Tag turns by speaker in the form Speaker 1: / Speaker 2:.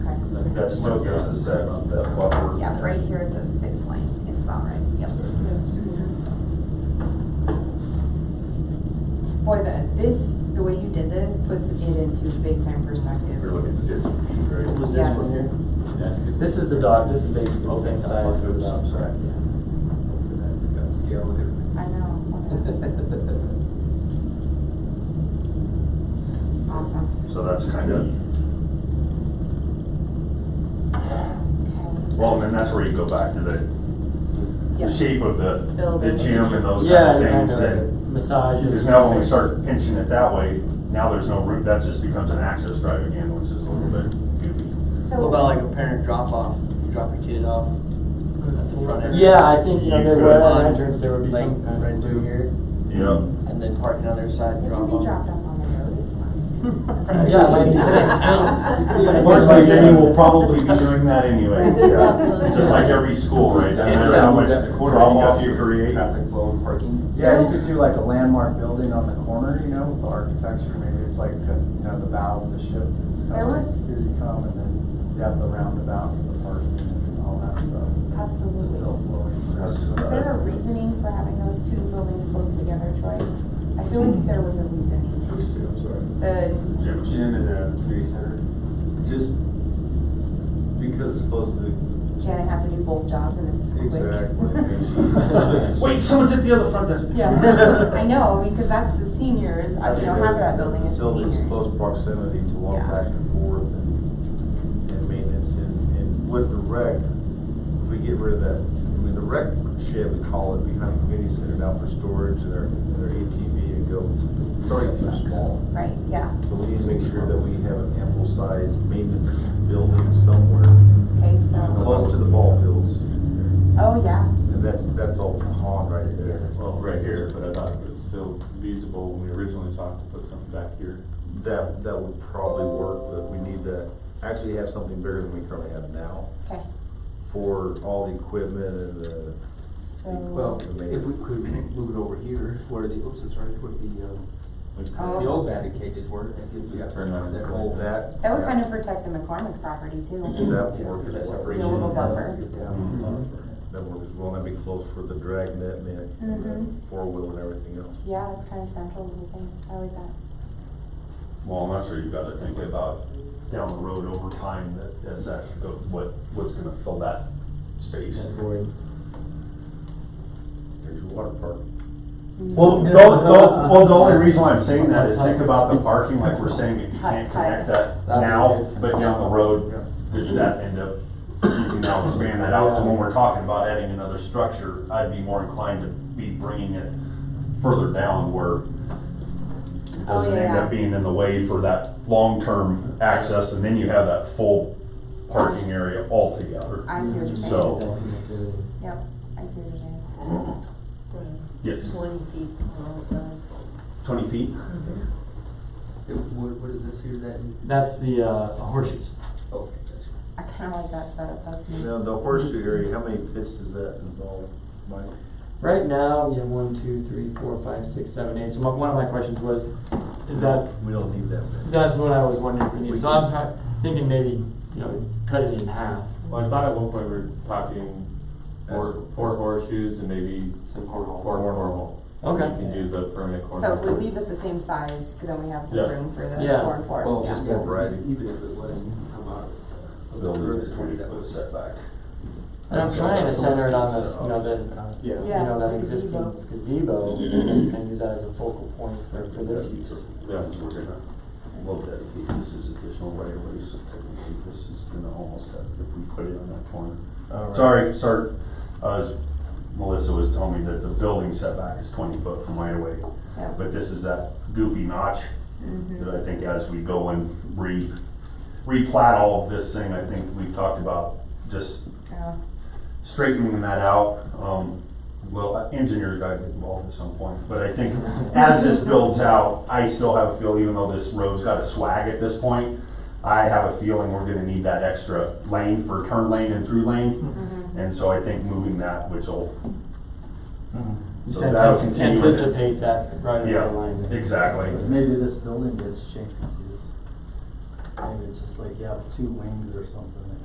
Speaker 1: That still gives us that, that buffer.
Speaker 2: Yeah, right here at the fixed line is about right, yep. Boy, the, this, the way you did this puts it into big time perspective.
Speaker 1: You're looking at the different view,
Speaker 3: What
Speaker 1: right?
Speaker 3: was this one here? This is the dot, this is basically the same size as the dot.
Speaker 1: I'm sorry.
Speaker 4: It's got scale with everything.
Speaker 2: I know. Awesome.
Speaker 1: So that's kind of,
Speaker 2: Okay.
Speaker 1: well, and then that's where you go back to the the
Speaker 2: Yep.
Speaker 1: shape of the, the
Speaker 2: Building.
Speaker 1: gym and those
Speaker 3: Yeah,
Speaker 1: kind of
Speaker 3: kind
Speaker 1: things. And
Speaker 3: of massages.
Speaker 1: Because now when we start pinching it that way, now there's no route, that just becomes an access drive again, which is a little bit goofy.
Speaker 2: So
Speaker 5: What about like a parent drop off, you drop your kid off at the front area?
Speaker 3: Yeah, I think, you know,
Speaker 1: You
Speaker 3: there
Speaker 1: could
Speaker 3: were
Speaker 1: run
Speaker 3: an entrance, there would be
Speaker 5: Like
Speaker 3: some kind
Speaker 5: right
Speaker 3: of.
Speaker 5: through here,
Speaker 1: Yeah.
Speaker 5: and then park on the other side
Speaker 2: It can
Speaker 5: and drop
Speaker 2: be
Speaker 5: off.
Speaker 2: dropped off on the road, it's fine.
Speaker 3: Yeah, like you said.
Speaker 1: Looks like Danny will probably be doing that anyway, yeah. just like every school, right? No matter how much drop off you create.
Speaker 4: Traffic flow and parking.
Speaker 6: Yeah, you could do like a landmark building on the corner, you know, with the architecture, maybe it's like, uh, you know, the bow of the ship. It's
Speaker 2: There
Speaker 6: kind of like,
Speaker 2: was-
Speaker 6: here you come, and then you have the roundabout and the parking and all that stuff.
Speaker 2: Absolutely.
Speaker 6: Still flowing.
Speaker 1: That's,
Speaker 2: Is there a
Speaker 1: uh,
Speaker 2: reasoning for having those two buildings close together, Troy? I feel like there was a reasoning.
Speaker 4: Those two, I'm sorry.
Speaker 2: The,
Speaker 1: gym.
Speaker 4: Gym and the community center. Just because it's close to the.
Speaker 2: Janet has to do both jobs and it's quick.
Speaker 1: Wait, someone's at the other front desk.
Speaker 2: Yeah, I know, because that's the seniors, I don't have that building is the
Speaker 4: Facilities,
Speaker 2: seniors.
Speaker 4: close proximity to walk
Speaker 2: Yeah.
Speaker 4: back and forth and, and maintenance and, and with the rec, if we get rid of that, I mean, the rec shed, we call it behind the community center now for storage and their, their ATV and go, it's already too small.
Speaker 2: Right, yeah,
Speaker 4: So we need to make sure that we have an ample sized maintenance building somewhere
Speaker 2: okay, so,
Speaker 4: close to the ball fields.
Speaker 2: oh, yeah,
Speaker 4: And that's, that's all pond right there. That's all-
Speaker 7: Well, right here, but I thought it was still feasible when we originally talked to put something back here.
Speaker 4: That, that would probably work, but we need to actually have something bigger than we currently have now.
Speaker 2: okay,
Speaker 4: for all the equipment and the,
Speaker 2: so,
Speaker 3: Well, if we could move it over here, where the, oops, sorry, where the, um,
Speaker 2: Oh,
Speaker 3: the old batting cages were, that gives you that, that
Speaker 4: all
Speaker 3: whole.
Speaker 4: that.
Speaker 2: that would kind of protect the McCormick property
Speaker 4: That
Speaker 2: too.
Speaker 4: would work as
Speaker 2: The little
Speaker 4: well.
Speaker 2: buffer.
Speaker 4: That work as well, and that'd be close for the dragnet, net, and
Speaker 2: Mhm.
Speaker 4: the four wheel and everything else.
Speaker 2: Yeah, that's kind of central to the thing, I like that.
Speaker 1: Well, and that's where you've got to think about down the road over time, that, as that, go- what, what's gonna fill that space.
Speaker 4: There's your water park.
Speaker 2: Mm.
Speaker 1: Well, no, no, well, the only reason why I'm saying that is think about the parking, like we're saying, if you can't connect that now, but down the road, does that end up, you can now expand that out, so when we're talking about adding another structure, I'd be more inclined to be bringing it further down where it
Speaker 2: Oh,
Speaker 1: doesn't end
Speaker 2: yeah.
Speaker 1: up being in the way for that long-term access, and then you have that full parking area altogether.
Speaker 2: I see what you're saying,
Speaker 1: So,
Speaker 2: yep, I see what you're saying.
Speaker 1: yes,
Speaker 8: Twenty feet on all sides.
Speaker 1: twenty feet?
Speaker 3: What, what is this here, Oh, that? That's the, uh, horseshoes.
Speaker 4: Okay.
Speaker 2: I kind of like that setup, that's neat.
Speaker 4: Now, the horseshoe area, how many pits does that involve, Mike?
Speaker 3: Right now, we have one, two, three, four, five, six, seven, eight, so my, one of my questions was, is that
Speaker 4: We don't need that many.
Speaker 3: That's what I was wondering for you. So I'm ha- thinking maybe, you know, cut it in half.
Speaker 7: Well, I thought at one point we were talking four,
Speaker 4: That's-
Speaker 7: four horseshoes and maybe some cornhole. Four cornhole. You
Speaker 3: Okay.
Speaker 7: can do the permanent
Speaker 2: So if we
Speaker 7: cornhole.
Speaker 2: leave it the same size, then we have the
Speaker 7: Yeah.
Speaker 2: room for the
Speaker 3: Yeah.
Speaker 2: four and four, yeah.
Speaker 4: Well, Oh, just more variety.
Speaker 3: Even if it was.
Speaker 1: Building is twenty foot setback.
Speaker 3: And I'm trying to center it on this, you know, the,
Speaker 7: Yeah.
Speaker 3: you
Speaker 2: Yeah,
Speaker 3: know, that
Speaker 2: the gazebo.
Speaker 3: existing gazebo, and
Speaker 1: Mm-hmm.
Speaker 3: then you can use that as a focal point for, for this use.
Speaker 7: Yeah, we're gonna.
Speaker 1: Well, dedicate this as additional right of ways, so technically this is gonna almost have, if we put it on that corner. Sorry, sir, uh, Melissa was telling me that the building setback is twenty foot from right of way.
Speaker 2: Yeah. Mm-hmm.
Speaker 1: But this is that goofy notch that I think as we go and re, replat all of this thing, I think we've talked about just
Speaker 2: Yeah.
Speaker 1: straightening that out. Um, well, uh, engineers got to get involved at some point, but I think as this builds out, I still have a feel, even though this road's got a swag at this point, I have a feeling we're gonna need that extra lane for turn lane and through lane.
Speaker 2: Mm-hmm.
Speaker 1: And so I think moving that, which will,
Speaker 3: Just
Speaker 1: So that'll
Speaker 3: antici-
Speaker 1: continue it.
Speaker 3: anticipate that right
Speaker 1: Yeah.
Speaker 3: in line. there.
Speaker 1: exactly.
Speaker 6: Maybe this building gets changed to, maybe it's just like, you have two wings or something.